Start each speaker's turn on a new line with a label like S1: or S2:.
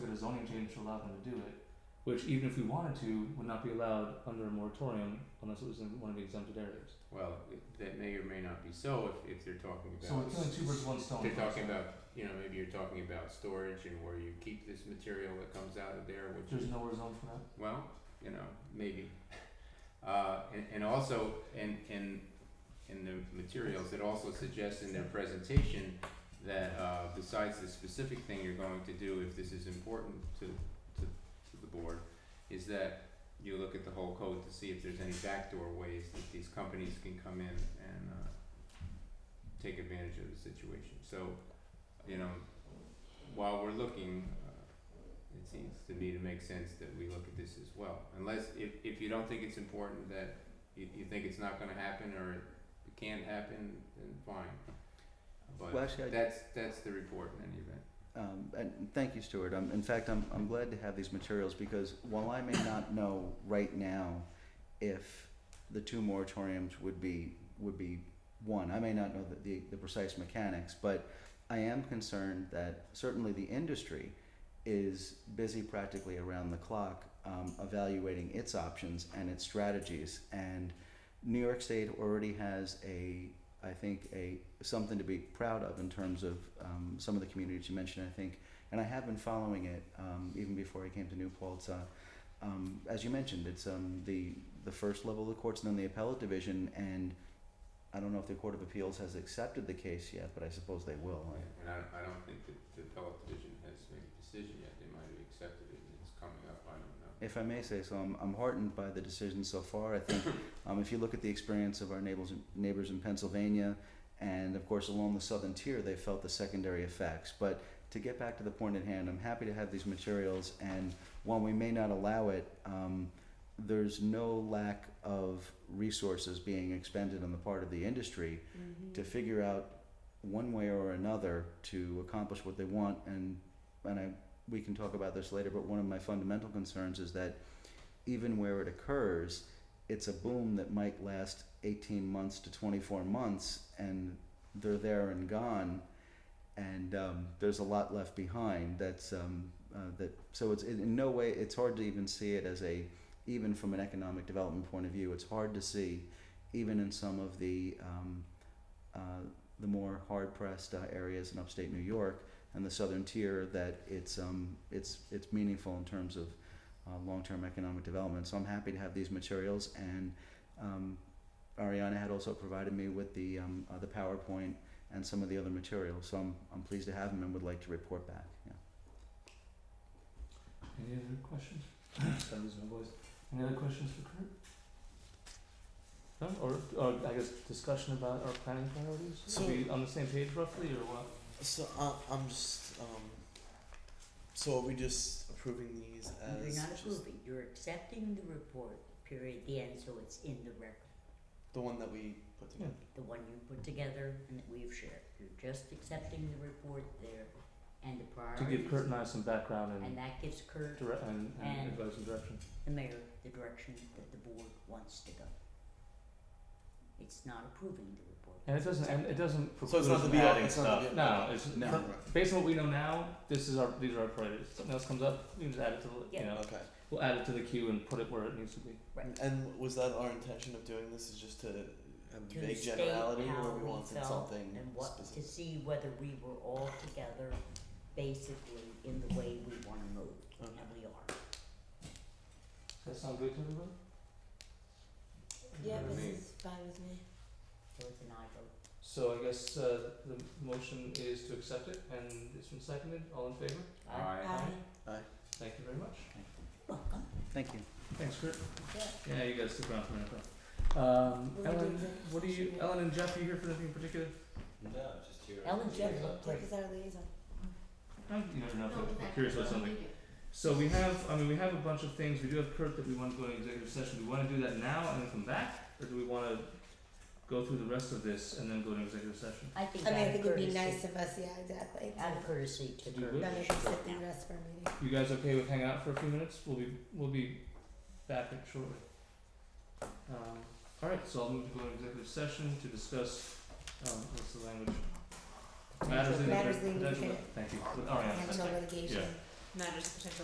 S1: zoning change to allow them to do it, which even if we wanted to, would not be allowed under a moratorium unless it was in one of the exempted areas.
S2: Well, it- that may or may not be so if, if they're talking about.
S1: So we're killing two birds with one stone.
S2: They're talking about, you know, maybe you're talking about storage and where you keep this material that comes out of there, which
S1: There's
S2: is,
S1: nowhere zone for that.
S2: well, you know, maybe. Uh, and, and also, in, in, in the materials, it also suggests in their presentation that, uh, besides the specific thing you're going to do, if this is important to, to, to the board, is that you look at the whole code to see if there's any backdoor ways that these companies can come in and, uh, take advantage of the situation. So, you know, while we're looking, uh, it seems to me to make sense that we look at this as well. Unless, if, if you don't think it's important that you, you think it's not gonna happen or it can't happen, then fine.
S3: Well,
S2: But
S3: actually, I,
S2: that's, that's the report in any event.
S3: um, and thank you, Stuart. Um, in fact, I'm, I'm glad to have these materials because while I may not know right now if the two moratoriums would be would be one, I may not know the, the, the precise mechanics, but I am concerned that certainly the industry is busy practically around the clock um, evaluating its options and its strategies. And New York State already has a, I think, a something to be proud of in terms of um, some of the communities you mentioned. I think, and I have been following it um, even before I came to Newport. It's, uh, um, as you mentioned, it's um, the the first level of the courts and then the appellate division. And I don't know if the Court of Appeals has accepted the case yet, but I suppose they will. I-
S2: And I, I don't think that the appellate division has made a decision yet. They might have accepted it and it's coming up, I don't know.
S3: If I may say so, I'm, I'm heartened by the decision so far. I think um, if you look at the experience of our neighbors, neighbors in Pennsylvania, and of course along the southern tier, they felt the secondary effects. But to get back to the point at hand, I'm happy to have these materials, and while we may not allow it, um, there's no lack of resources being expended on the part of the industry to figure out one way or another to accomplish what they want and and I we can talk about this later but one of my fundamental concerns is that even where it occurs it's a boom that might last 18 months to 24 months and they're there and gone and um, there's a lot left behind that's um, uh, that so it's in in no way it's hard to even see it as a even from an economic development point of view it's hard to see even in some of the um, uh, the more hard pressed uh, areas in upstate New York and the southern tier that it's um, it's it's meaningful in terms of uh, long term economic development. So I'm happy to have these materials and um, Ariana had also provided me with the um, uh, the PowerPoint and some of the other materials. So I'm I'm pleased to have them and would like to report back. Yeah.
S1: Any other questions? I'm losing my voice. Any other questions for Kurt? No, or, or I guess discussion about our planning priorities?
S4: So-
S1: Are we on the same page roughly or what?
S4: So uh, I'm just um. So are we just approving these as
S5: You're not
S4: just
S5: approving, you're accepting the report, period, the end, so it's in the record.
S4: the one that we put together?
S5: The one you put together and that we've shared, you're just accepting the report there and the
S1: To
S5: priorities.
S1: give Kurt and I some background and
S5: And that gives Kurt,
S1: dire- and, and
S5: and-
S1: advice and direction.
S5: the mayor, the direction that the board wants to go. It's not approving the report.
S1: And it doesn't, and it doesn't
S4: So
S1: preclude
S4: it's not
S1: us
S4: the
S1: from
S4: be all.
S1: adding
S4: It's not the
S1: stuff,
S4: be
S1: no, it's,
S3: No.
S1: for- based on what we know now, this is our, these are our priorities, If something else comes up, we just add it to the, you
S5: Yeah.
S1: know,
S4: Okay.
S1: we'll add it to the queue and put it where it needs to be.
S5: Right.
S4: And was that our intention of doing this? Is just to have
S5: To
S4: vague
S5: state
S4: generality,
S5: how
S4: or we
S5: we
S4: wanted
S5: felt
S4: something
S5: And what, to
S4: specific?
S5: see whether we were all together, basically in the way we wanna move, and
S4: Okay.
S5: we are.
S1: Does that sound good to everybody?
S2: Yeah, this is
S5: So it's an I vote.
S1: So I guess uh the motion is to accept it and it's been seconded, all in favor?
S2: Aye.
S1: Thank you very much.
S5: Welcome.
S3: Thank you.
S1: Thanks, Kurt.
S5: Yeah.
S1: Yeah, you guys stick around for a minute. though. Um
S5: We'll
S1: Ellen,
S5: do the-
S1: what do you, Ellen and Jeff, are you here for anything in particular?
S2: No, just here.
S5: Ellen Jeff looked like
S1: No, you never know, if we're curious about something. So we have, I mean, we have a bunch of things, we do have Kurt that we wanna go into executive session, do we wanna do that now and then come back? Or do we wanna go through the rest of this and then go to executive session?
S5: I think
S6: I
S5: out
S6: mean, I
S5: of
S6: think it'd be
S5: courtesy-
S6: nice of us, yeah, exactly.
S5: Out of courtesy to
S1: Do
S5: Kurt.
S6: Rather
S1: we?
S5: we
S6: than
S5: should go
S6: sit through the
S5: now.
S6: rest of our meeting.
S1: You guys okay with hanging out for a few minutes? We'll be we'll be back shortly. Um, all right, so I'll move to go into executive session to discuss um, what's the language? Matters in
S6: Matters in
S1: potential.
S6: litigation.
S1: Thank you. All right.
S6: Potential litigation.
S1: yeah. matters of potential